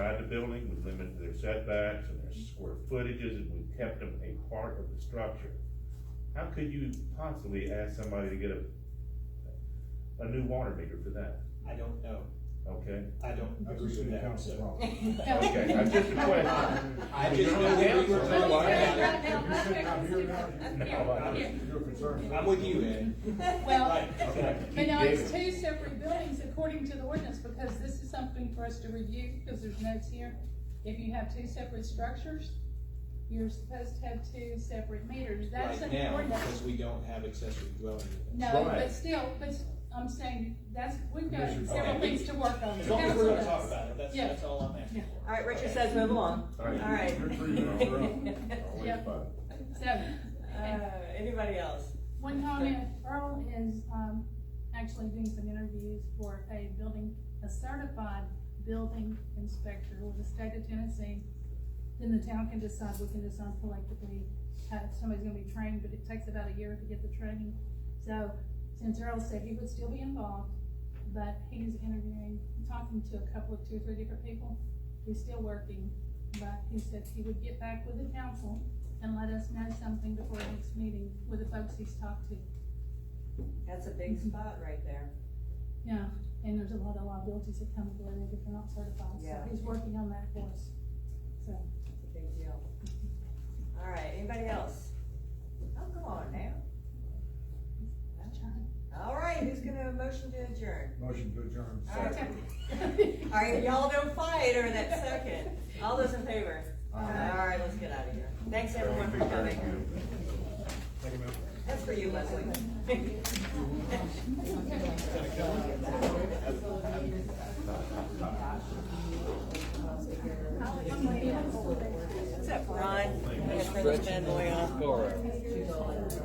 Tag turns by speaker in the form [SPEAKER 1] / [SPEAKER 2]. [SPEAKER 1] the building, we limited their setbacks and their square footages, and we kept them a part of the structure. How could you possibly ask somebody to get a, a new water meter for that,
[SPEAKER 2] I don't know,
[SPEAKER 1] okay?
[SPEAKER 2] I don't
[SPEAKER 3] That's
[SPEAKER 2] agree
[SPEAKER 3] the city
[SPEAKER 2] with that,
[SPEAKER 3] council's
[SPEAKER 2] so.
[SPEAKER 3] problem.
[SPEAKER 1] Okay, that's just a question.
[SPEAKER 2] I just
[SPEAKER 1] You're on the
[SPEAKER 2] know that we were
[SPEAKER 1] council.
[SPEAKER 2] talking about that.
[SPEAKER 3] You're sitting out here now,
[SPEAKER 1] No, I-
[SPEAKER 3] you're concerned.
[SPEAKER 2] I'm with you, Ed.
[SPEAKER 4] Well,
[SPEAKER 2] Right, exactly.
[SPEAKER 4] but no, it's two separate buildings according to the ordinance, because this is something for us to review, because there's notes here. If you have two separate structures, you're supposed to have two separate meters, that's
[SPEAKER 2] Right
[SPEAKER 4] an
[SPEAKER 2] now,
[SPEAKER 4] ordinance.
[SPEAKER 2] because we don't have accessory dwelling. units.
[SPEAKER 4] No,
[SPEAKER 1] Right.
[SPEAKER 4] but still, but I'm saying, that's, we've got
[SPEAKER 3] Commissioner,
[SPEAKER 4] several
[SPEAKER 2] okay.
[SPEAKER 4] things to work on.
[SPEAKER 2] As long as we're gonna
[SPEAKER 4] Council
[SPEAKER 2] talk
[SPEAKER 4] does.
[SPEAKER 2] about it, that's,
[SPEAKER 4] Yeah.
[SPEAKER 2] that's all I'm asking for.
[SPEAKER 5] All right, Richard says move along.
[SPEAKER 1] All right.
[SPEAKER 5] All right.
[SPEAKER 3] You're three minutes, you're up.
[SPEAKER 1] Always
[SPEAKER 4] Yeah.
[SPEAKER 1] fun.
[SPEAKER 4] So,
[SPEAKER 5] Uh, anybody else?
[SPEAKER 4] One comment, Earl is, um, actually doing some interviews for a building, a certified building inspector with the state of Tennessee. Then the town can decide, we can decide collectively, how somebody's gonna be trained, but it takes about a year to get the training. So, since Earl said he would still be involved, but he's interviewing, talking to a couple of two or three different people, he's still working. But he said he would get back with the council and let us know something before the next meeting with the folks he's talked to.
[SPEAKER 5] That's a big spot right there.
[SPEAKER 4] Yeah, and there's a lot of liabilities that come with it if you're not certified, so
[SPEAKER 5] Yeah.
[SPEAKER 4] he's working on that for us, so.
[SPEAKER 5] It's a big deal. All right, anybody else? Oh, come on now. All right, who's gonna motion to adjourn?
[SPEAKER 3] Motion to adjourn.
[SPEAKER 5] All right. All right, y'all don't fight over that second. All those in favor? All right, let's get out of here. Thanks everyone for coming. That's for you, Leslie. What's up, Ron? You got a French fanboy on.